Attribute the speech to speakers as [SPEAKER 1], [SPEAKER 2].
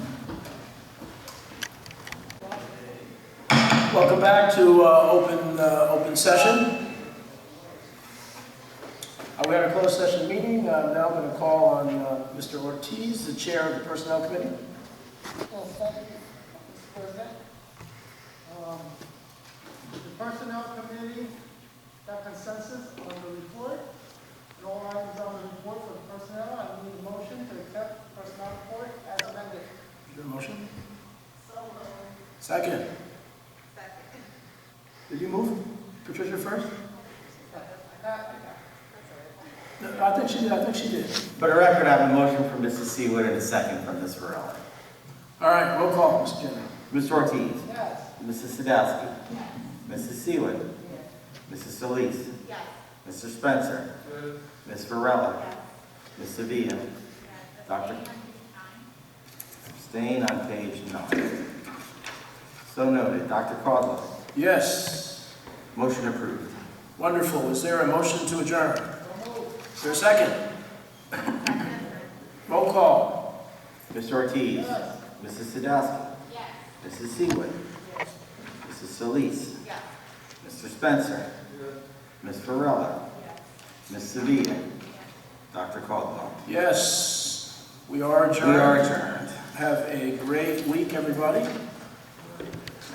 [SPEAKER 1] Welcome back to uh, open, uh, open session. Uh, We had a closed session meeting. Uh, I'm now going to call on uh, Mr. Ortiz, the chair of the Personnel Committee.
[SPEAKER 2] Well, thank you, Mr. President. Um, The Personnel Committee got consensus on the report, and all items on the report for the personnel, I need a motion to accept the personnel report as amended.
[SPEAKER 1] Is there a motion? Second. Did you move Patricia first? No, I think she did, I think she did.
[SPEAKER 3] For the record, I have a motion from Mrs. Seawood and a second from Ms. Varela.
[SPEAKER 1] All right, roll call, Mr. Chairman.
[SPEAKER 3] Mr. Ortiz.
[SPEAKER 2] Yes,
[SPEAKER 3] Mrs. Sadowski. Mrs. Seawood. Mrs. Solis. Mr. Spencer. Ms. Varela. Ms. Sevilla. Dr. Abstain on page nine. So noted. Dr. Caldwell.
[SPEAKER 1] Yes,
[SPEAKER 3] Motion approved.
[SPEAKER 1] wonderful. Is there a motion to adjourn? Is there a second? Roll call.
[SPEAKER 3] Mr. Ortiz.
[SPEAKER 2] yes,
[SPEAKER 3] Mrs. Sadowski. Mrs. Seawood. Mrs. Solis. Mr. Spencer. Ms. Varela. Ms. Sevilla. Dr. Caldwell.
[SPEAKER 1] Yes, we are
[SPEAKER 3] We
[SPEAKER 1] adjourned.
[SPEAKER 3] are adjourned.
[SPEAKER 1] Have a great week, everybody.